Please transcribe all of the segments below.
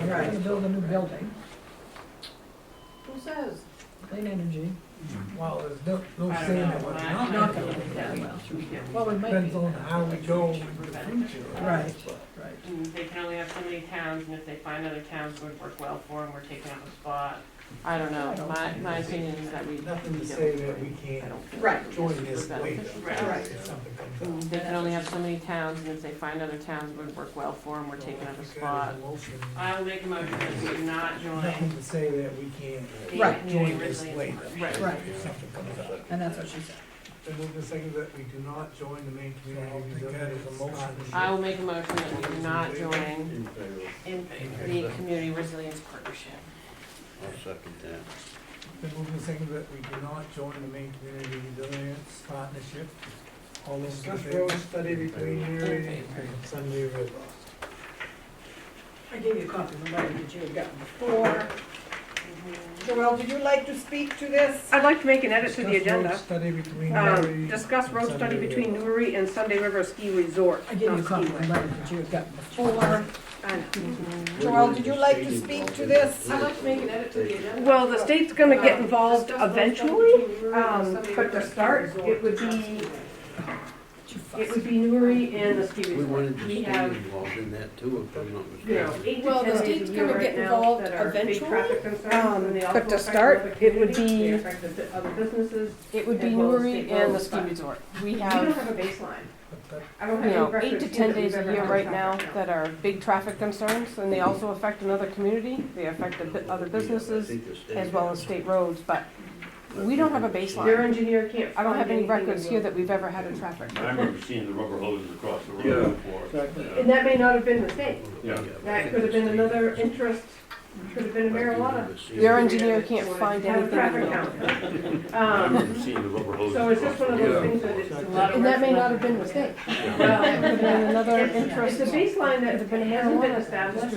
Right, to build a new building, Who says? clean energy. Well, there's no, no I don't saying know. that we're not. I- I gonna Not gonna do do it. that well. Well, we might be. Depends on how we go in the future. Right, right. And they can only have so many towns, and if they find other towns would work well for them, we're taking up a spot. I don't I know, don't my, think my it's- opinion is that we. Nothing we to don't- say that we I can't don't feel Right. that join it's this later. beneficial. Right. If something Mm, comes up. They can only have so many towns, and if they find other towns would work well for them, we're taking up a If you spot. got a motion, I will make a motion that we do not Nothing join to say that we can't the Right. community join this resilience. later. Right. Right. If something comes up. And that's what she said. The move is second that we do not join the main community resilience I motion. will make a motion that we do not join In favor, in the community resilience partnership. I'll second that. The move is second that we do not join the main community resilience partnership. All those in Discuss favor? road study between Erie In favor. and Sunday River. I gave you a copy of the letter that you had gotten before. Joel, did you like to speak to this? I'd like to make an edit to the Discuss road agenda. Study between Erie Um, Discuss and road study Sunday between River. Newry and Sunday River Ski Resort. I gave you a not copy of the skiway. letter that you had gotten before. I know. Joel, did you like to speak to this? I'd like to make an edit to the agenda. Well, the state's gonna get Uh, involved discuss road study eventually, between Newry and um, Sunday but to River Ski start, Resort. it would be, it would be Newry and the ski We resort. wanted to We stay have, involved in that too, if I'm not you know, mistaken. eight to Well, the ten days state's a year gonna right get now involved that are big eventually, traffic concerns, and they um, also but to affect start, other it would communities, they be- affect the bu- other businesses. It would be As well as Newry state and the roads, ski but- resort. We We don't have, have a baseline. But that- I don't you have any know, record eight to here ten that days we've a ever year had right now traffic that are big traffic concerns, and they also affect another community. They affect the bu- other businesses as well as state roads, but we don't have a baseline. Their engineer can't. I don't have any find anything records that here will- that we've ever had a traffic. I remember seeing the rubber hoses across the road before. And that may not have been the state. Yeah. That could have been another interest, could have been marijuana. Your engineer can't find Have a anything. traffic in count. I Um, remember seeing the rubber hoses. so it's just one of those across the things road. that it's a the- lot of. And that may work. not have been a mistake. Well, That could have been another It's interest. a baseline that It's been hasn't been marijuana. established. It's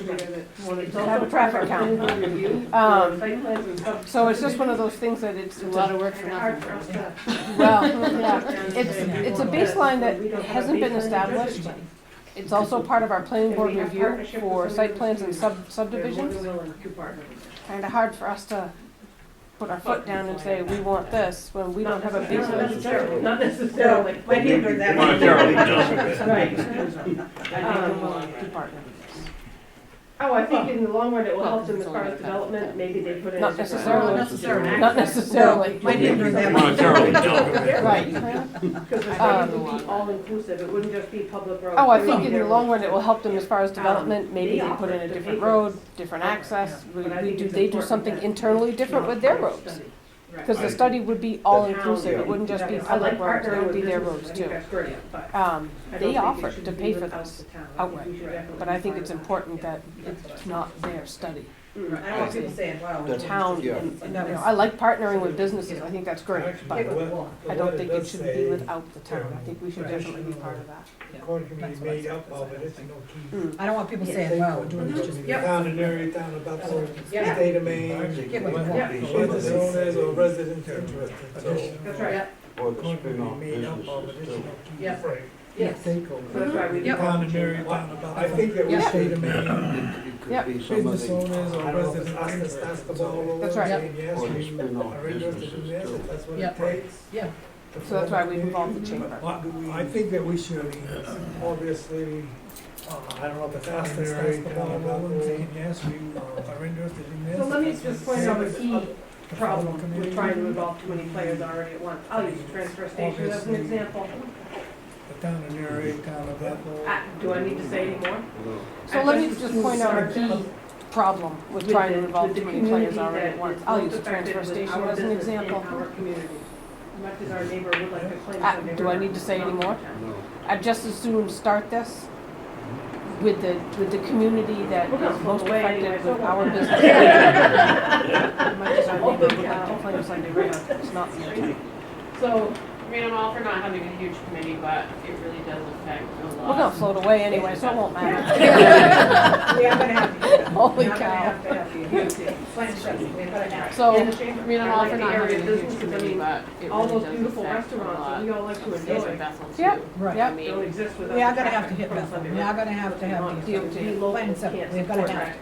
Have also a traffic part of count. the review, Um, site plans and stuff. So it's just one of those things that it's a lot of work for And hard for nothing. us to- Well, yeah, it's, it's a baseline that hasn't been established. It's also part of our planning board review for site plans and sub They're more than subdivisions. willing to partner with us. Kinda hard for us to put our foot down and say, we want this, when we don't have a Not baseline. necessarily, Not necessarily, I can't do that. Monetarily doesn't. Right. Um, department. Oh, I think in the long run, it will Well, help them as it's far only as about that. development, maybe they put it. Not as a- necessarily. Not necessarily. Might be under that. Monetarily doesn't. Right. Because the Um, study would be all-inclusive, it wouldn't just be public roads. Oh, I It would think be in the their long roads. run, it will help them as far as development, maybe Um, they put in they a offer different it. road, different Yeah. access, we, But I we think do, it's they do important something that internally it's different with not their public roads. study. Right. Because the I- study would be all-inclusive, yeah. it wouldn't just be I like public roads, partnering it would with be their businesses. roads I think too. that's great, but Um, I don't they think it offered should to be pay for without this the town. I think outright, we should definitely but I think find it's out. important that it's not their study. Mm. I don't want people saying, wow. That's- Town, Yeah. and, and, you know, I like partnering with businesses, I think that's great, Actually, but the le- the I don't letter think it does should say be without the town, I think we should Right. definitely be part of that. the Corn committee That's what I made said, up of it, because it's I- no key. Mm. I don't want people saying, wow, we're doing this just. Yep. Town in area, town about the Yeah. state of Maine. Get what you want. Yeah. Whether it's owners or residents interested, so. That's right, Or the Corn committee spin-off made up of it, businesses it's too. no key. Yeah. Yes. So that's why we. Yep. Town in area, town about. I think that we the should- State of Maine, It Yep. could be some of business owners the, or I don't know if it's us residents that's interested, asked the ball so. rolling, That's right. saying, yes, or the we spin-off are interested in businesses this, too. if that's what Yeah. it takes. Yeah. to So that's why we form a involved the committee. chamber. What do we- I think that we should, obviously, uh, I don't know if it's us that's asked the ball rolling, saying, yes, we uh, are interested in this. So let me if that's just what point it out a takes. key The formal problem committee. with trying to involve too many players already at once. I'll use the transfer station as an example. The town in area, town of Bethel. I- Do I need to say any more? So let me just point out a key problem with trying to involve too many players already at once. I'll use the transfer station as an example. Much as our neighbor would like to claim Ah, Sunday do I River need to say is any not more? downtown. No, I'd just as soon start this with the, with the community that We're gonna is most flip away anyway, affected so with what? our business. Much as our neighbor would Open like to cow. claim Sunday River, it's not the intent. So, We're I mean, I'm all for not having a huge committee, but it really does affect a lot. gonna float away anyway, so it won't matter. we are gonna have to. do that. We're Holy not gonna cow. have to have the community plan session. We have to have- So, In the chamber, I mean, I'm I all like for the not area having a huge businesses. I committee, mean, but it really does affect a lot. All those beautiful restaurants that we all like to of cities in enjoy Bethel too. Yep. Right. Yep. I mean, don't exist without. We are the gonna have to traffic hit from Bethel, Sunday we River. are gonna have to have these DOT. plans up, we're gonna have to.